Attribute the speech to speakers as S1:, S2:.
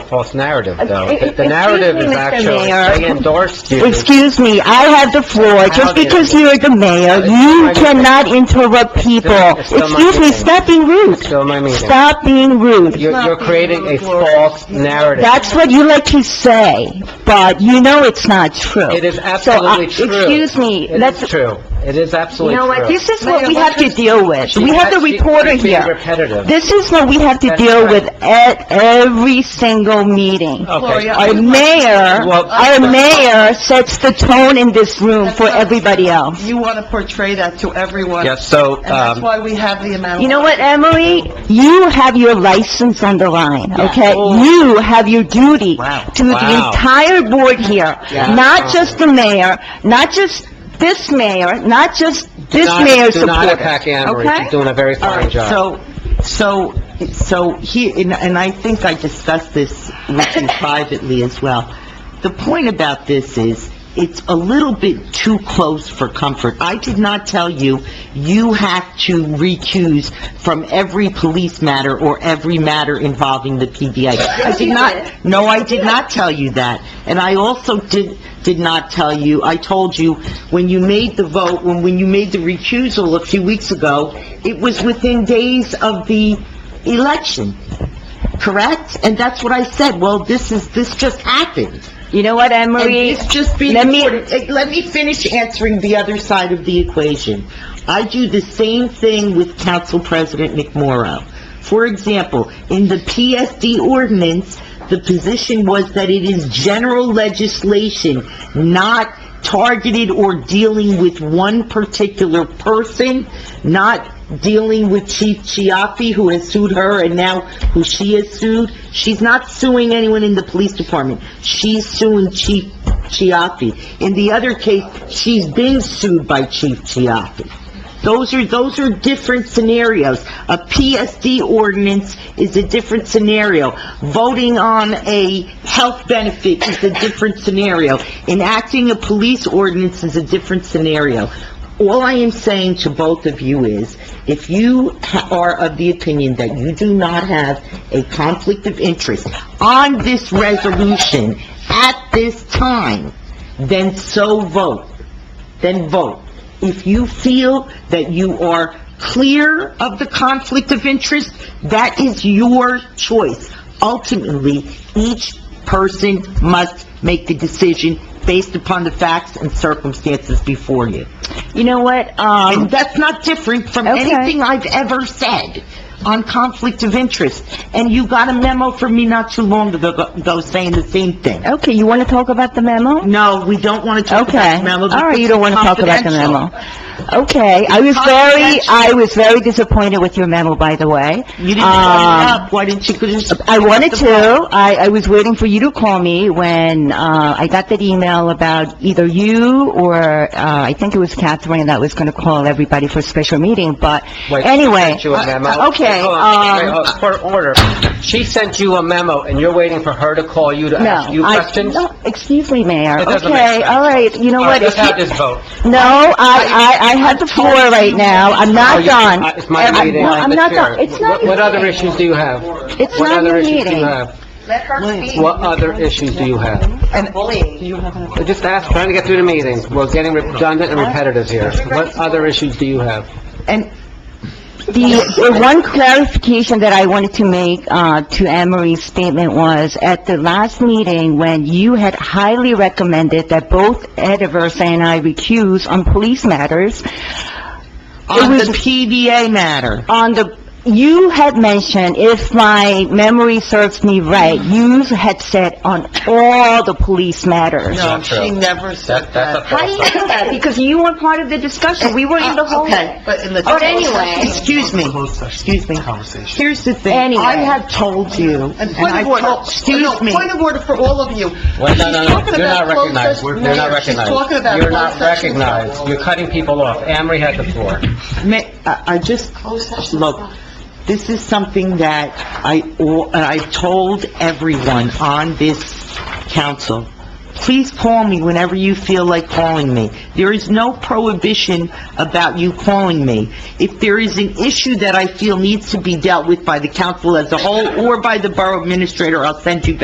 S1: false narrative, though. The-
S2: Uh, e- Excuse
S1: The
S2: me,
S1: narrative is
S2: Mr.
S1: actually,
S2: Mayor.
S1: they endorsed you.
S2: Excuse me, I have the floor. Just because you're the mayor, you cannot interrupt people. Excuse me, stop being rude.
S1: So my meeting.
S2: Stop being rude.
S1: You're, you're creating a false narrative.
S2: That's what you like to say, but you know it's not true.
S1: It is
S2: So, uh,
S1: absolutely true.
S2: Excuse me,
S1: It
S2: let's,
S1: is true. It is absolutely
S2: you know
S1: true.
S2: what, this is what we have to deal with. We have the
S1: She's- she's
S2: reporter
S1: being
S2: here.
S1: repetitive.
S2: This is what we have to
S1: That's
S2: deal
S1: right. Oh,
S2: with at every single meeting.
S1: Okay.
S2: Our mayor,
S1: Well-
S2: our mayor sets the tone in this room for everybody else.
S3: You want to portray that to everyone.
S1: Yes, so,
S3: And that's
S1: um,
S3: why we have the amount of...
S2: You know what, Emily? You have your license on the line, okay?
S3: Oh.
S2: You have your duty to the
S1: Wow.
S2: entire board here,
S1: Yeah.
S2: not just the mayor, not just this mayor, not just this
S1: Not-
S2: mayor's
S1: Do not
S2: supporter,
S1: attack Anne Marie. She's
S2: okay?
S1: doing a very
S3: All
S1: fine
S3: right,
S1: job.
S3: so, so, so he, and and I think I discussed this with you privately as well. The point about this is, it's a little bit too close for comfort. I did not tell you, you have to recuse from every police matter or every matter involving the PBA. I did not, no, I did not tell you that. And I also did, did not tell you, I told you, when you made the vote, when, when you made the recusal a few weeks ago, it was within days of the election, correct? And that's what I said, well, this is, this just happened.
S2: You know what, Anne
S3: And
S2: Marie?
S3: it's just being
S2: let me-
S3: recorded. Hey, Let me finish answering the other side of the equation. I do the same thing with Council President McMorro. For example, in the PSD ordinance, the position was that it is general legislation, not targeted or dealing with one particular person, not dealing with Chief Chiaffi, who has sued her, and now who she has sued. She's not suing anyone in the police department. She's suing Chief Chiaffi. In the other case, she's been sued by Chief Chiaffi. Those are, those are different scenarios. A PSD ordinance is a different scenario. Voting on a health benefit is a different scenario. Enacting a police ordinance is a different scenario. All I am saying to both of you is, if you ha- are of the opinion that you do not have a conflict of interest on this resolution at this time, then so vote then vote. If you feel that you are clear of the conflict of interest, that is your choice. Ultimately, each person must make the decision based upon the facts and circumstances before you.
S2: You know what, um...
S3: And that's not different from
S2: Okay.
S3: anything I've ever said on conflict of interest. And you got a memo from me not too long ago ago saying the same thing.
S2: Okay, you want to talk about the memo?
S3: No, we don't want to talk about
S2: Okay.
S3: the memo.
S2: All right, you
S3: because
S2: don't want to
S3: it's
S2: talk about the
S3: confidential.
S2: memo. Okay, I was very,
S3: confidential.
S2: I was very disappointed with your memo, by the way.
S3: You didn't bring it
S2: Um,
S3: up, why didn't you just...
S2: I wanted to, I, I was waiting for you to call me when, uh, I got that email about either you or, uh, I think it was Catherine that was gonna call everybody for a special meeting, but
S1: Wait, she
S2: anyway.
S1: sent you a memo?
S2: uh, Okay,
S1: Hold on, oh, wait,
S2: um,
S1: hold on, for uh, order, she sent you a memo, and you're waiting for her to call you to ask you
S2: no, I,
S1: questions?
S2: no, excuse me, Mayor.
S1: That doesn't make
S2: Uh, Okay,
S1: sense.
S2: all right, you know
S1: All right,
S2: what?
S1: let's
S2: if you-
S1: have this vote.
S2: No, I, I, I have the floor right now, I'm
S1: Oh,
S2: not
S1: you-
S2: done.
S1: uh, It's my
S2: I'm-
S1: meeting,
S2: no,
S1: I'm the
S2: not
S1: chair.
S2: done. It's not
S1: What- What
S2: your
S1: other
S2: meeting.
S1: issues do you have?
S2: It's
S1: What
S2: not
S1: other
S2: your
S1: issues do you
S2: meeting.
S1: have? What other issues do you have?
S3: And bullying.
S1: We're Just ask, trying to get through the meeting, we're getting redundant and repetitive here. What other issues do you have?
S3: And
S2: The, the one clarification that I wanted to make, uh, to Anne Marie's statement was, at the last meeting, when you had highly recommended that both Ed Aversa and I recuse on police matters,
S3: on
S2: was-
S3: the PBA matter,
S2: on the, you had mentioned, if my memory serves me right, you had said on all the police matters.
S3: no, she never said that.
S2: How do you know that? Because you were part of the discussion, we were in the whole...
S3: Okay, but in the...
S2: But anyway-
S3: Excuse me, excuse me. Here's the thing,
S2: Anyway.
S3: I have told you, and
S4: And point
S3: I
S4: of order,
S3: told, excuse me.
S4: No, point of order for all of you.
S1: Wait, no,
S4: She's
S1: no, no,
S4: talking
S1: you're not
S4: about closed
S1: recognized,
S4: session-
S1: you're not
S4: Mayor,
S1: recognized.
S4: She's talking about
S1: You're
S4: closed
S1: not
S4: session.
S1: recognized, you're cutting people off. Anne Marie has the floor.
S3: Ma- I I just, look, this is something that I, al- and I've told everyone on this council, please call me whenever you feel like calling me. There is no prohibition about you calling me. If there is an issue that I feel needs to be dealt with by the council as a whole or by the borough administrator, I'll send you back